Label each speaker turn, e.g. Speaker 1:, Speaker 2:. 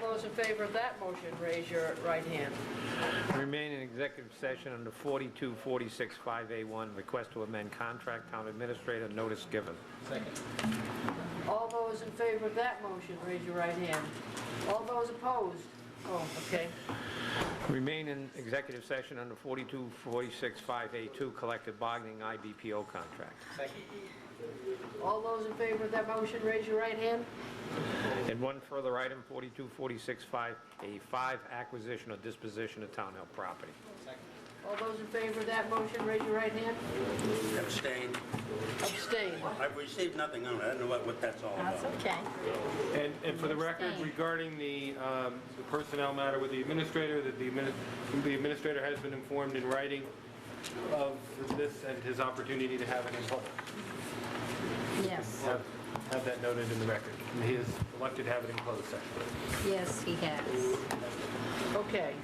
Speaker 1: those in favor of that motion, raise your right hand.
Speaker 2: Remain in executive session under 42465A1, request to amend contract, town administrator, notice given.
Speaker 1: All those in favor of that motion, raise your right hand. All those opposed? Oh, okay.
Speaker 2: Remain in executive session under 42465A2, collective bargaining IBPO contract.
Speaker 1: All those in favor of that motion, raise your right hand.
Speaker 2: And one further item, 42465A5, acquisition or disposition of town-held property.
Speaker 1: All those in favor of that motion, raise your right hand.
Speaker 3: Abstain.
Speaker 1: Abstain.
Speaker 3: I've received nothing on it. I don't know what, what that's all
Speaker 4: That's
Speaker 3: about.
Speaker 4: okay.
Speaker 5: And, and for the record, regarding the um, the personnel matter with the administrator, that the admini- the administrator has been informed in writing of this and his opportunity to have it in public.
Speaker 4: Yes,
Speaker 5: Have have that noted in the record. And He is elected to have it in closed session.
Speaker 4: yes, he has.
Speaker 1: Okay.